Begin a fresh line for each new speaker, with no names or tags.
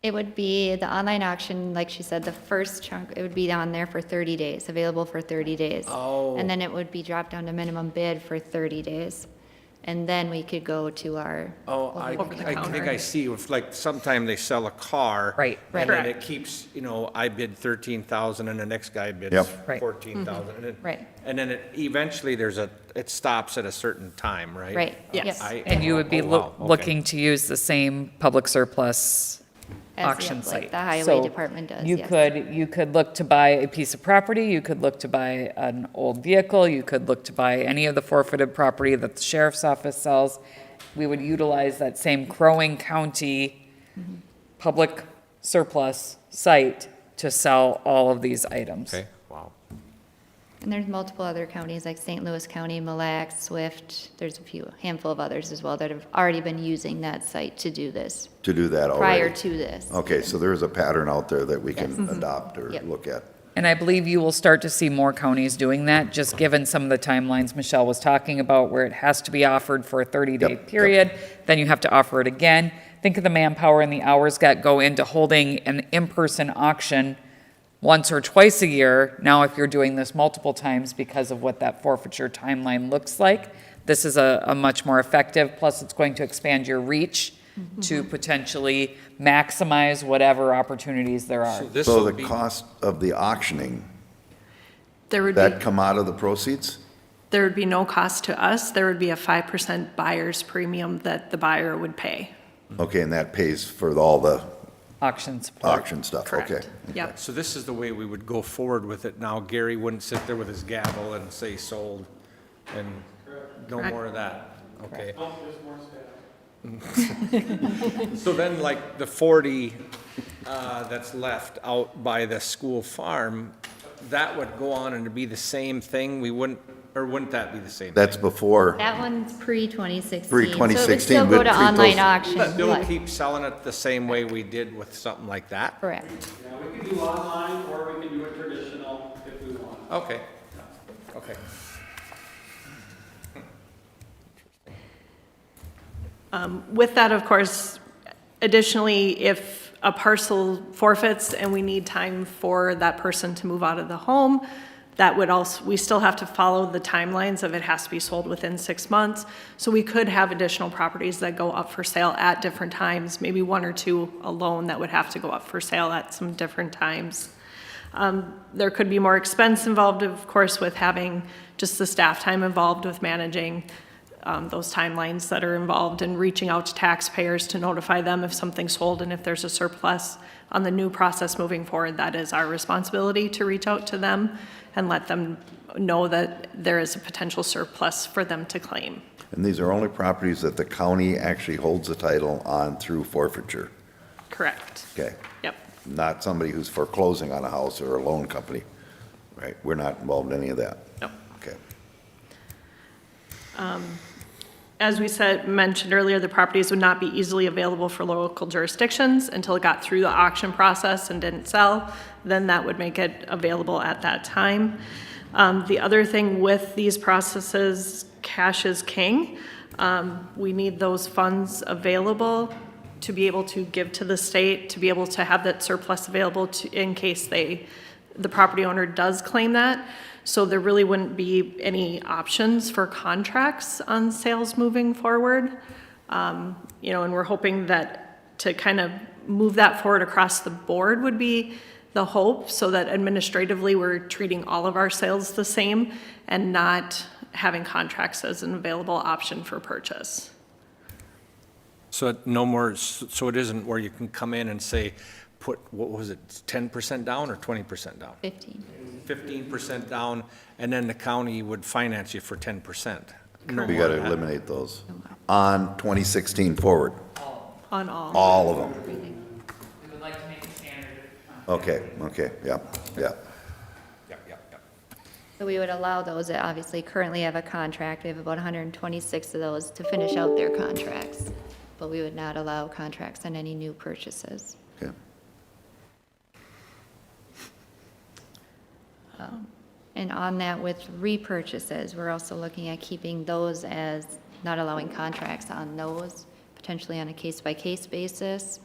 It would be the online auction, like she said, the first chunk, it would be on there for 30 days, available for 30 days.
Oh.
And then it would be dropped down to minimum bid for 30 days. And then we could go to our.
Oh, I,
Over the
I think I
counter.
see, if like, sometime they sell a car.
Right,
And then
right.
it keeps, you know, I bid thirteen thousand and the next guy bids
Yep.
Right. Mm-hmm.
fourteen thousand. and then-
Right.
And then it, eventually there's a, it stops at a certain time, right?
Right, yes.
I-
And you would be
oh,
loo-
wow, okay.
looking to use the same public surplus
as the-
auction
like
site.
The highway
So
department does,
You
yes.
could, you could look to buy a piece of property, you could look to buy an old vehicle, you could look to buy any of the forfeited property that the sheriff's office sells. We would utilize that same Crow Wing County public surplus site to sell all of these items.
Okay, wow.
And there's multiple other counties, like St. Louis County, Mille Lacs, Swift, there's a few, handful of others as well that have already been using that site to do this,
to do that already?
prior to this.
Okay, so there is a pattern out there that we can adopt or
Yep.
look at.
And I believe you will start to see more counties doing that, just given some of the timelines Michelle was talking about, where it has to be offered for a 30-day
Yep, yep.
period, then you have to offer it again. Think of the manpower and the hours that go into holding an in-person auction once or twice a year. Now, if you're doing this multiple times because of what that forfeiture timeline looks like, this is a, a much more effective, plus it's going to expand your reach to potentially maximize whatever opportunities there are.
So this
So
will
the
be,
cost of the auctioning,
There would be,
that come out of the proceeds?
there would be no cost to us. There would be a 5% buyer's premium that the buyer would pay.
Mm-hmm.
Okay, and that pays for all the
Auction support.
auction stuff, okay?
Correct. Yep.
so this is the way we would go forward with it now. Gary wouldn't sit there with his gavel and say sold and no more of that, okay? So then like the forty, uh, that's left out by the school farm, that would go on and be the same thing? We wouldn't, or wouldn't that be the same?
That's before,
That one's pre-2016. So it would
2016,
still go
but
to
treat those-
online auction,
But They'll
but-
keep selling it the same way we did with something like that?
correct.
Yeah, we can do online or we can do it traditional if we want.
Okay, okay.
Um, With that, of course, additionally, if a parcel forfeits and we need time for that person to move out of the home, that would also, we still have to follow the timelines of it has to be sold within six months. So we could have additional properties that go up for sale at different times, maybe one or two alone that would have to go up for sale at some different times. Um, There could be more expense involved, of course, with having just the staff time involved with managing um, those timelines that are involved and reaching out to taxpayers to notify them if something's sold and if there's a surplus on the new process moving forward. That is our responsibility to reach out to them and let them know that there is a potential surplus for them to claim.
and these are only properties that the county actually holds the title on through forfeiture,
Correct.
okay?
Yep.
Not somebody who's foreclosing on a house or a loan company, right? We're not involved in any of that,
Yep.
okay?
As we said, mentioned earlier, the properties would not be easily available for local jurisdictions until it got through the auction process and didn't sell. Then that would make it available at that time. Um, The other thing with these processes, cash is king. Um, We need those funds available to be able to give to the state, to be able to have that surplus available to, in case they, the property owner does claim that. So there really wouldn't be any options for contracts on sales moving forward. Um, You know, and we're hoping that to kind of move that forward across the board would be the hope, so that administratively, we're treating all of our sales the same and not having contracts as an available option for purchase.
So it no more, s- so it isn't where you can come in and say, put, what was it, 10% down or 20% down?
15.
15% down, and then the county would finance you for 10%? No
We
more
gotta
than that.
eliminate those. On 2016 forward,
On all.
all of them,
We would like to make a standard.
okay, okay, yep, yep.
Yep, yep, yep.
So we would allow those that obviously currently have a contract, we have about 126 of those to finish out their contracts, but we would not allow contracts on any new purchases.
Okay.
And on that with repurchases, we're also looking at keeping those as, not allowing contracts on those, potentially on a case-by-case basis,